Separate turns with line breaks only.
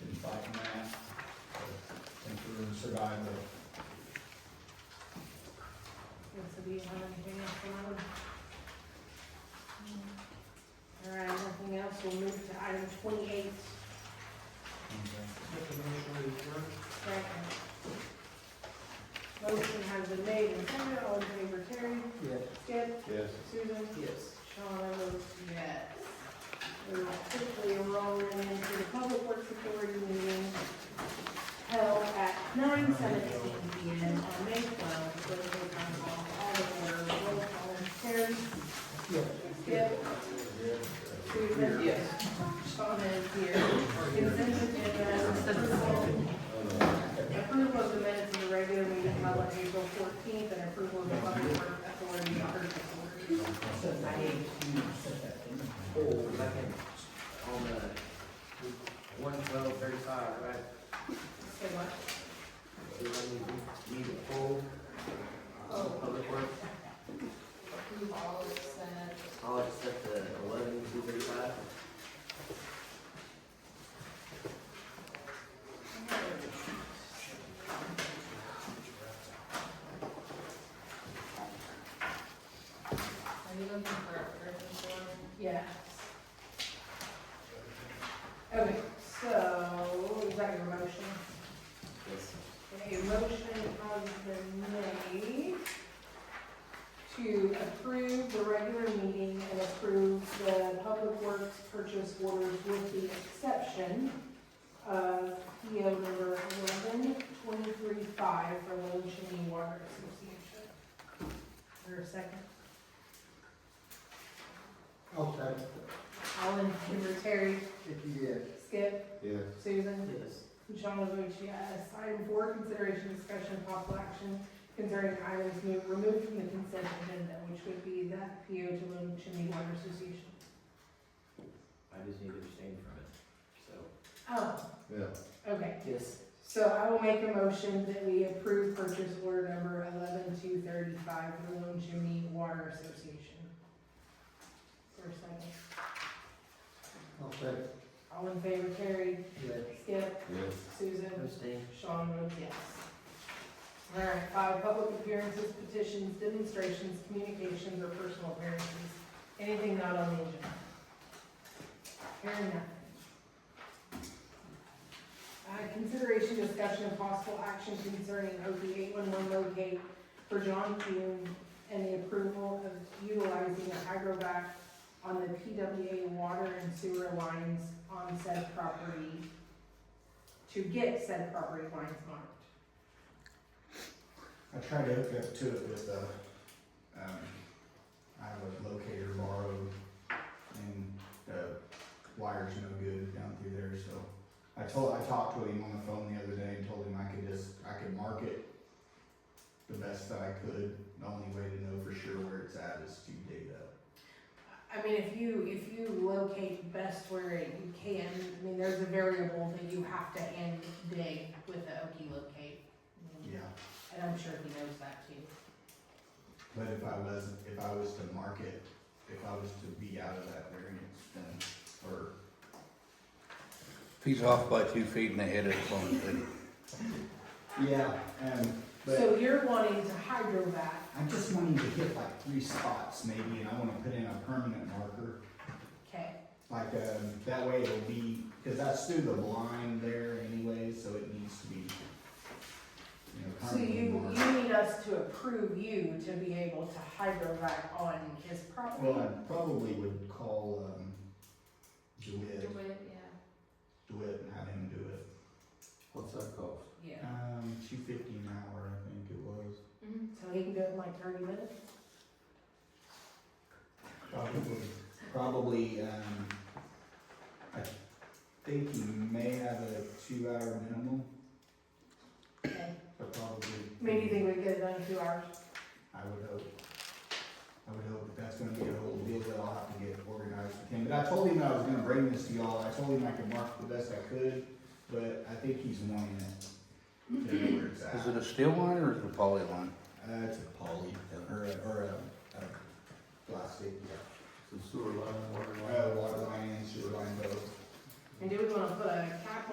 and fighting that, and through survival.
Okay, So do you have anything else on them? All right, nothing else, we'll move to item twenty-eight.
Make a motion to adjourn.
Second. Motion has been made and seconded, all in favor, Terry?
Yes.
Skip?
Yes.
Susan?
Yes.
Sean, I vote
Yes.
We will quickly roll into the Public Works Authority meeting held at nine seventeen P M on May twelfth, so we can call all of our roll call and Terry. Skip. Susan.
Yes.
Sean is here. Consent agenda, approval, approval of the minutes of the regular meeting held on April fourteenth, and approval of the Public Works Authority purchase order.
I need to set that in.
Oh, I can, on the one twelve thirty-five, right?
Say what?
Do I need, need a full public work?
Approve all except
I'll accept the eleven two thirty-five.
Are you looking for a purchase order?
Yeah. Okay, so, is that your motion?
Yes.
Okay, a motion has been made to approve the regular meeting and approve the public works purchase orders with the exception of PO number eleven twenty-three five for Little Chimney Water Association. Is there a second?
Okay.
All in favor, Terry,
Yes.
Skip,
Yes.
Susan?
Yes.
Michelle votes yes. Item four, consideration, discussion, and possible action concerning items new- removed from the consent agenda, which would be the PO to Little oh Chimney Water Association.
I just need to abstain from it, so.
Oh,
Yeah.
okay.
Yes.
So I will make a motion that we approve purchase order number eleven two thirty-five for the Little Chimney Water Association. For a second.
Okay.
All in favor, Terry,
Yes.
Skip,
Yes.
Susan?
Abstain.
Sean votes yes. All right, five, public appearances, petitions, demonstrations, communications, or personal appearances. Anything not on the agenda? Hearing none. Uh, consideration, discussion, and possible action concerning OP eight-one-one locate for John Kuhn and the approval of utilizing a hydrovac on the PWA water and sewer lines on said property to get said property lines marked.
I tried to hook up to it with a, um, Iowa locator borrowed, and the wire's no good down through there, so. I told, I talked to him on the phone the other day and told him I could just, I could mark it the best that I could. The only way to know for sure where it's at is to dig it up.
I mean, if you, if you locate best where you can, I mean, there's a variable that you have to end dig with the Oki locate.
Yeah,
And I'm sure he knows that too.
but if I was, if I was to mark it, if I was to be out of that variance, then, or
He's off by two feet and ahead of Oklahoma City.
Yeah, um, but
So you're wanting to hydro that,
I'm just wanting to hit like three spots maybe, and I wanna put in a permanent marker.
okay,
Like, um, that way it'll be, cause that's through the blind there anyway, so it needs to be, you know,
so
permanently
you,
marked.
you need us to approve you to be able to hydro that on his property?
Well, I probably would call, um, DeWitt,
Do it, yeah.
DeWitt and have him do it.
What's that cost?
Yeah,
Um, two fifty an hour, I think it was.
Mm-hmm.
so he can do it in like thirty minutes?
Probably, probably, um, I think you may have a two-hour minimum.
Okay.
But probably.
I mean, do you think we can get it done in two hours?
I would hope. I would hope that that's gonna be a whole deal that I'll have to get organized with him. But I told him I was gonna bring this to y'all. I told him I could mark the best I could, but I think he's wanting it. to know where it's at.
Is it a steel line or is it a poly line?
Uh, it's a poly, or a, or a, a plastic, Oh, yeah.
The sewer line, water
Uh, water line and sewer line both.
And do we wanna put a cap on